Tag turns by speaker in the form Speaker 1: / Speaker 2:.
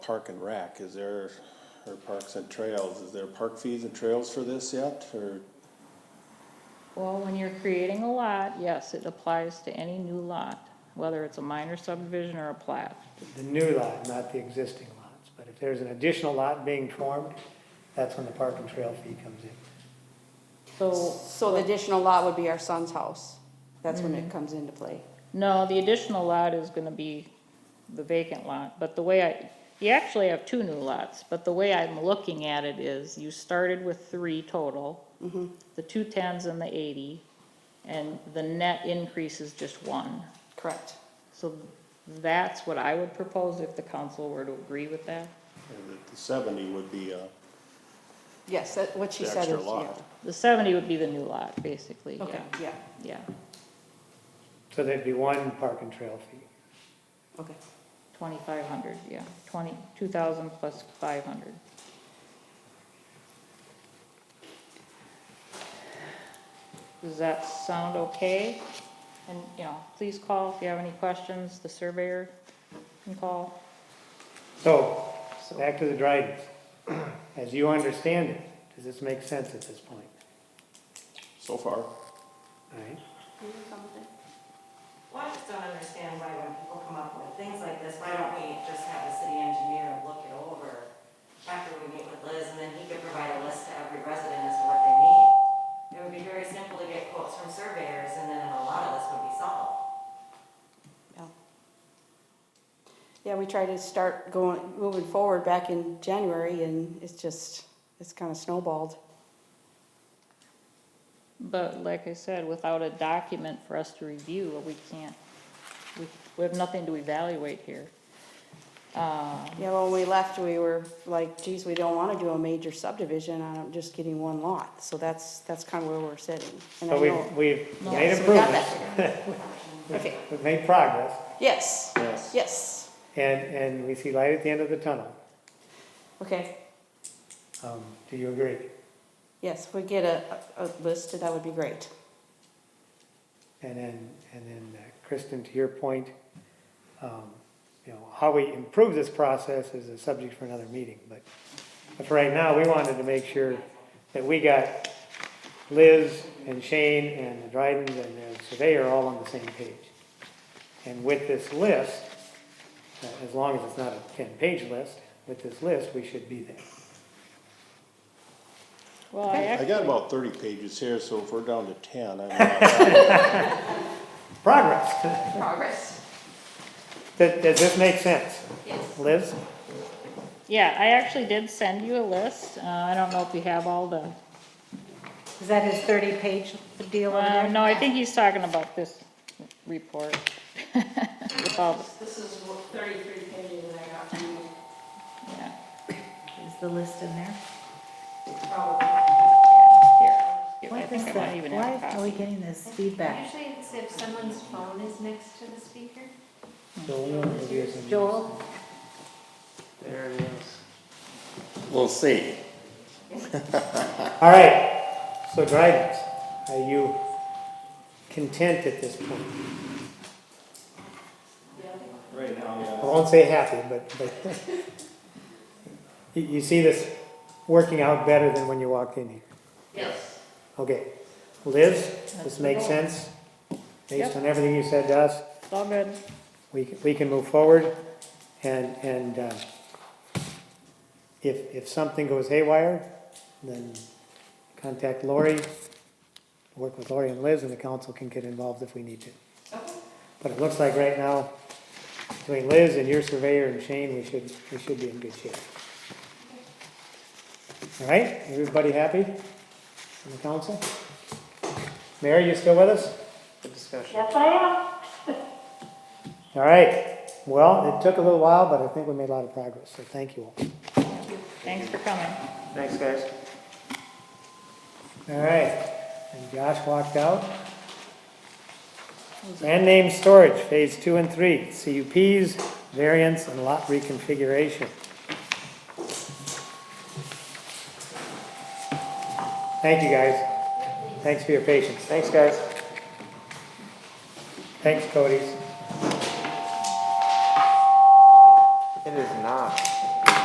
Speaker 1: Park and Rec, is there, or Parks and Trails, is there park fees and trails for this yet, or?
Speaker 2: Well, when you're creating a lot, yes, it applies to any new lot, whether it's a minor subdivision or a plat.
Speaker 3: the new lot, not the existing lots. But if there's an additional lot being formed, that's when the park and trail fee comes in.
Speaker 2: So,
Speaker 4: So the Mm-hmm. additional lot would be our son's house. That's when it comes into play.
Speaker 2: no, the additional lot is gonna be the vacant lot, but the way I, you actually have two new lots, but the way I'm looking at it is, you started with three total, the two tens and the eighty, and the net increase is just one.
Speaker 4: Correct.
Speaker 2: So that's what I would propose if the council were to agree with that.
Speaker 1: or the Seventy would be, uh,
Speaker 4: Yes, that, what she
Speaker 1: The
Speaker 4: said
Speaker 1: extra
Speaker 4: is, yeah.
Speaker 1: lot.
Speaker 2: The seventy would be the new lot, basically,
Speaker 4: Okay,
Speaker 2: yeah,
Speaker 4: yeah,
Speaker 2: yeah.
Speaker 3: So there'd be one park and trail fee.
Speaker 4: okay.
Speaker 2: Twenty-five hundred, yeah, twenty, two thousand plus five hundred. Does that sound okay? And, you know, please call if you have any questions, the surveyor can call.
Speaker 3: So, back to the Drydens. As you understand it, does this make sense at this point?
Speaker 1: so far,
Speaker 3: All right?
Speaker 5: Well, I just don't understand why when people come up with things like this, why don't we just have the city engineer look it over after we meet with Liz, and then he could provide a list to every resident as to what they need? It would be very simple to get quotes from surveyors, and then a lot of this would be solved.
Speaker 4: Yeah. Yeah, we tried to start going, moving forward back in January and it's just, it's kind of snowballed.
Speaker 2: But like I said, without a document for us to review, we can't, we, we have nothing to evaluate here.
Speaker 4: Yeah, when we left, we were like, geez, we don't want to do a major subdivision on just getting one lot. So that's, that's kind of where we're sitting. And I
Speaker 3: So
Speaker 4: know,
Speaker 3: we've, we've
Speaker 4: Yeah,
Speaker 3: made
Speaker 4: so we got
Speaker 3: improvements,
Speaker 4: okay,
Speaker 3: we've made progress,
Speaker 4: yes,
Speaker 1: yes.
Speaker 4: yes,
Speaker 3: and, and we see light at the end of the tunnel.
Speaker 4: okay.
Speaker 3: Um, Do you agree?
Speaker 4: Yes, if we get a, a a list, that would be great.
Speaker 3: And then, and then uh, Kristen, to your point, um, you know, how we improve this process is a subject for another meeting, but, but for right now, we wanted to make sure that we got Liz and Shane and the Drydens and the surveyor all on the same page. And with this list, uh, as long as it's not a ten-page list, with this list, we should be there.
Speaker 2: Well, I
Speaker 1: I
Speaker 2: actually.
Speaker 1: got about thirty pages here, so if we're down to ten, I'm not,
Speaker 3: Progress.
Speaker 4: Progress.
Speaker 3: Does, does this make sense?
Speaker 5: Yes.
Speaker 3: Liz?
Speaker 2: Yeah, I actually did send you a list. Uh, I don't know if you have all the,
Speaker 6: Is that his thirty-page deal over there?
Speaker 2: um, no, I think he's talking about this report. With all the-
Speaker 7: This is what- thirty-three pages that I got from you,
Speaker 2: yeah,
Speaker 6: Is the list in there?
Speaker 7: probably.
Speaker 2: yeah, here.
Speaker 6: Why
Speaker 2: I
Speaker 6: is
Speaker 2: think I
Speaker 6: that,
Speaker 2: might even have a
Speaker 6: why are we
Speaker 2: copy.
Speaker 6: getting this feedback?
Speaker 7: Usually it's if someone's phone is next to the speaker.
Speaker 6: Joel?
Speaker 8: We'll see.
Speaker 3: All right, so Dryden's, are you content at this point?
Speaker 8: Right now,
Speaker 3: I won't say happy, but, but you, you see this working out better than when you walked in here?
Speaker 7: Yes.
Speaker 3: Okay, Liz, this makes sense? Based
Speaker 2: Yep.
Speaker 3: on everything you said to us,
Speaker 2: It's all good.
Speaker 3: we, can- we can move forward and, and, uh, if, if something goes haywire, then contact Lori, work with Lori and Liz, and the council can get involved if we need to.
Speaker 7: Okay.
Speaker 3: But it looks like right now, between Liz and your surveyor and Shane, we should, we should be in good shape. All right, everybody happy in the council? Mary, you still with us?
Speaker 7: Yes, I am.
Speaker 3: All right, well, it took a little while, but I think we made a lot of progress, so thank you all.
Speaker 2: Thanks for coming.
Speaker 3: Thanks, guys. All right, and Josh walked out. Land name storage, phase two and three, CUPs, variance, and lot reconfiguration. Thank you, guys. Thanks for your patience. Thanks, guys. Thanks, Cody's.